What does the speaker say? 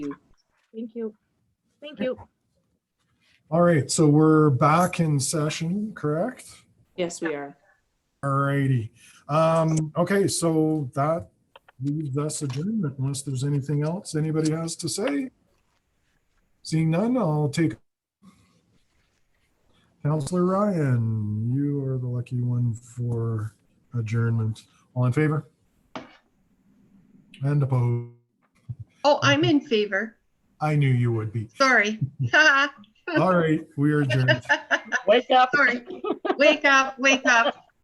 Thank you. Thank you. All right, so we're back in session, correct? Yes, we are. All righty. Um, okay, so that leaves us adjournment unless there's anything else anybody has to say. Seeing none, I'll take Counselor Ryan, you are the lucky one for adjournment. All in favor? And opposed? Oh, I'm in favor. I knew you would be. Sorry. All right, we are adjourned. Wake up. Sorry. Wake up, wake up.